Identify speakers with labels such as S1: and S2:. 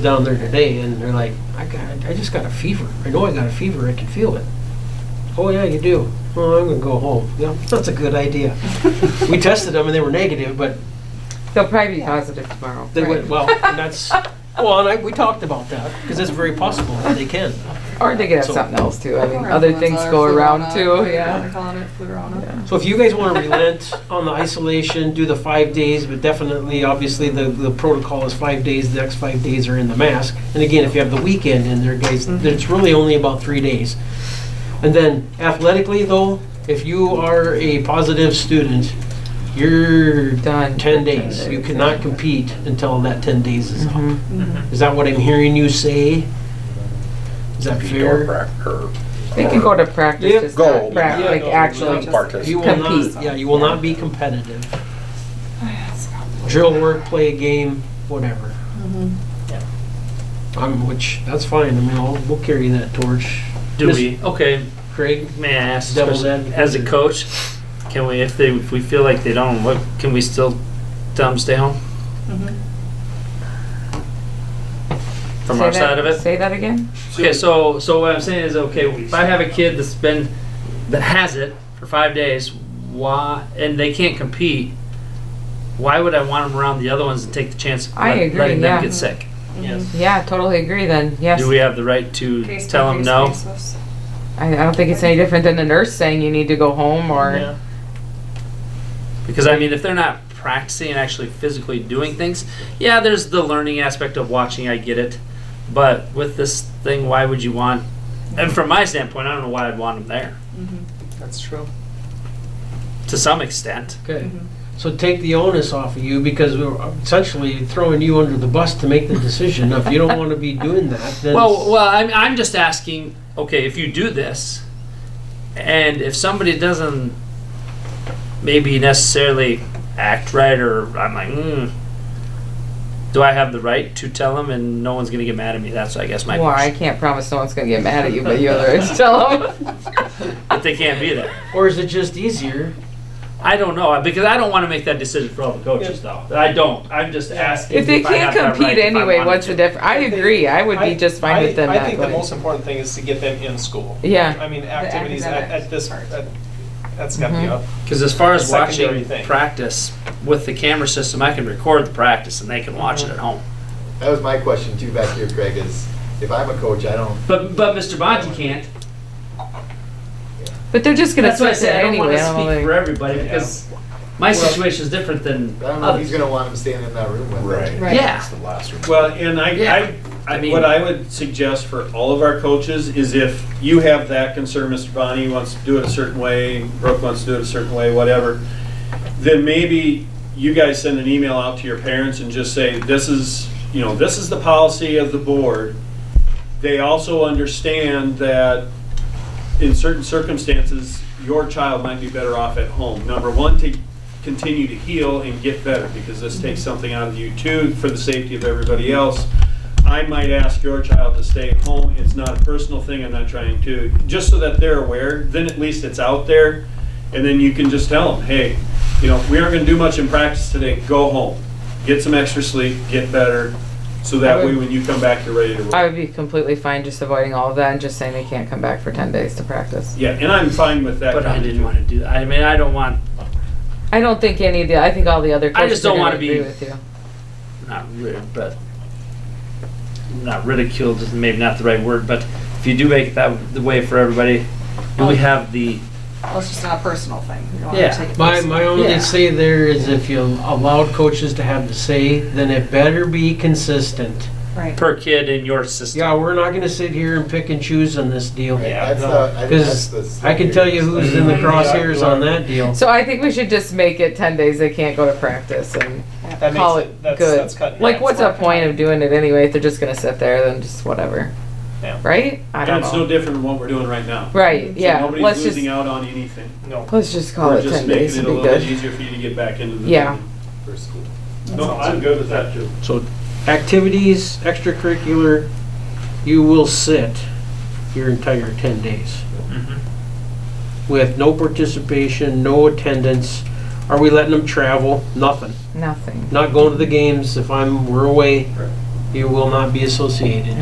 S1: down there today and they're like, I got, I just got a fever. I know I got a fever. I can feel it. Oh yeah, you do. Well, I'm gonna go home. Yeah, that's a good idea. we tested them and they were negative, but
S2: They'll probably be positive tomorrow.
S1: they went well. And that's well, and I, we talked about that because it's very possible that they can.
S2: Or they could have
S1: So-
S2: something else too. I mean, other things go around too, yeah.
S3: Calling it Flurona.
S1: So if you guys want to relent on the isolation, do the five days, but definitely, obviously, the, the protocol is five days. The next five days are in the mask. And again, if you have the weekend in there, guys, it's really only about three days. And then athletically, though, if you are a positive student, you're
S2: Done.
S1: ten days. Mm-hmm. You cannot compete until that ten days is
S2: Mm-hmm.
S1: up. Is that what I'm hearing you say? Is that
S4: If you don't
S1: fair?
S4: prac- or
S2: They can go to practice,
S1: Yeah.
S2: just
S4: Go.
S2: not prac,
S1: Yeah,
S2: like
S1: no,
S2: actually.
S3: no.
S4: participate.
S1: You will
S2: Compete.
S1: not. Yeah, you will not be competitive.
S3: Oh,
S1: drill work, play a game, whatever. Mm-hmm. I'm, which, that's fine, I mean, I'll, we'll carry that torch.
S5: Do
S1: Miss-
S5: we? Okay,
S1: Craig,
S5: may I ask,
S1: Devil's
S5: especially
S1: advocate.
S5: as a coach, can we, if they, if we feel like they don't, what, can we still tell them stay home?
S3: Mm-hmm.
S5: From
S2: Say
S5: our
S2: that-
S5: side of it?
S2: Say that again?
S5: Okay, so, so what I'm saying is, okay, if I have a kid that's been, that has it for five days, why, and they can't compete, why would I want them around the other ones and take the chance of
S2: I
S5: let-
S2: agree,
S5: letting
S2: yeah.
S5: them get sick?
S1: yes.
S2: Yeah, totally agree then, yes.
S5: Do we have the right to tell them no?
S2: I, I don't think it's any different than the nurse saying you need to go home or,
S5: Because I mean, if they're not practicing and actually physically doing things, yeah, there's the learning aspect of watching. I get it, but with this thing, why would you want? And from my standpoint, I don't know why I'd want them there.
S2: That's true.
S5: To some extent,
S1: Okay, so take the onus off of you, because we're essentially throwing you under the bus to make the decision. Now, If you don't wanna be doing that, then.
S5: Well, well, I'm, I'm just asking. Okay, if you do this, and if somebody doesn't maybe necessarily act right, or I'm like, mm, do I have the right to tell them, and no one's gonna get mad at me? That's I guess my
S2: Well, I can't promise no one's gonna get mad at you, but you have the right to tell them.
S5: but they can't be there.
S1: Or is it just easier?
S5: I don't know because I don't want to make that decision for all the coaches though. I don't. I'm just asking.
S2: If they
S5: I
S2: can't
S5: have that right,
S2: compete
S5: if I
S2: anyway,
S5: wanted
S2: what's
S5: to.
S2: the difference? I agree, I would be just fine with them
S6: I, I
S2: not
S6: think the
S2: going.
S6: most important thing is to get them in school.
S2: Yeah,
S6: I mean, activities at,
S3: academic
S6: at this part. That, that's got to be up.
S2: Mm-hmm.
S5: Because as far as
S6: Secondary
S5: watching
S6: thing.
S5: practice with the camera system, I can record the practice and they can watch
S2: Uh-huh.
S5: it at home.
S7: That was my question too back here, Craig, is if I'm a coach, I don't,
S5: But but Mr. Bonte can't.
S2: but they're just gonna
S5: That's why I
S2: sit
S5: said
S2: there
S5: I don't
S2: anyway.
S5: want to
S2: I don't
S5: speak
S2: think-
S5: for everybody
S6: Yeah.
S5: because my situation is different than
S7: I don't know if
S5: others.
S7: he's gonna want him staying in that room with him.
S3: Right.
S5: Yeah.
S4: The last one.
S8: Well, and I,
S5: Yeah,
S8: I,
S5: I
S8: I
S5: mean-
S8: what I would suggest for all of our coaches is if you have that concern, Mr. Bonnie wants to do it a certain way, Brooke wants to do it a certain way, whatever, then maybe you guys send an email out to your parents and just say, this is, you know, this is the policy of the board. They also understand that in certain circumstances, your child might be better off at home. Number one, to continue to heal and get better, because this takes something out of you too, for the safety of everybody else. I might ask your child to stay at home, it's not a personal thing, I'm not trying to, just so that they're aware, then at least it's out there. And then you can just tell them, hey, you know, we aren't gonna do much in practice today, go home, get some extra sleep, get better, so that way when you come back, you're ready to roll.
S2: I would be completely fine just avoiding all of that and just saying they can't come back for ten days to practice.
S8: Yeah, and I'm fine with that.
S5: But I
S8: kind of-
S5: didn't want to do that. I mean, I don't want
S2: I don't think any of the, I think all the other
S5: I
S2: coaches
S5: just
S2: are
S5: don't
S2: gonna
S5: wanna be-
S2: agree with you.
S5: not rid, but not ridiculed is maybe not the right word, but if you do make it that the way for everybody, do we have the
S3: Well, it's just not a personal thing. You don't wanna
S5: Yeah.
S3: take it
S1: My,
S3: personal.
S1: my only
S5: Yeah.
S1: say there is if you allowed coaches to have the say, then it better be consistent.
S3: Right.
S5: per kid in your system?
S1: Yeah, we're not gonna sit here and pick and choose on this deal.
S7: Right, That's
S5: no.
S7: the, I think that's the.
S1: Because I can tell you who's in the
S5: Mm-hmm.
S1: crosshairs on that deal.
S2: So I think we should just make it ten days they can't go to practice and,
S6: That
S2: Call
S6: makes
S2: it
S6: it, that's,
S2: good.
S6: that's cutting
S2: like,
S6: it.
S2: what's the point of doing it anyway? If they're just gonna sit there, then just whatever.
S6: Yeah.
S2: Right? I
S8: And
S2: don't
S8: it's no
S2: know.
S8: different than what we're doing right now.
S2: Right, yeah,
S8: So
S2: let's
S8: nobody's
S2: just, Oh,
S8: losing out on anything.
S2: let's just call
S8: We're
S2: it ten
S8: just
S2: days
S8: making
S2: and
S8: it a
S2: be
S8: little bit
S2: good.
S8: easier for you to get back into the.
S2: Yeah.
S7: For school.
S8: No, I'm good with that too.
S1: So activities, extracurricular, you will sit your entire 10 days. With no participation, no attendance. Are we letting them travel? Nothing.
S2: Nothing.
S1: Not going to the games if I'm, we're away. you will not be associated.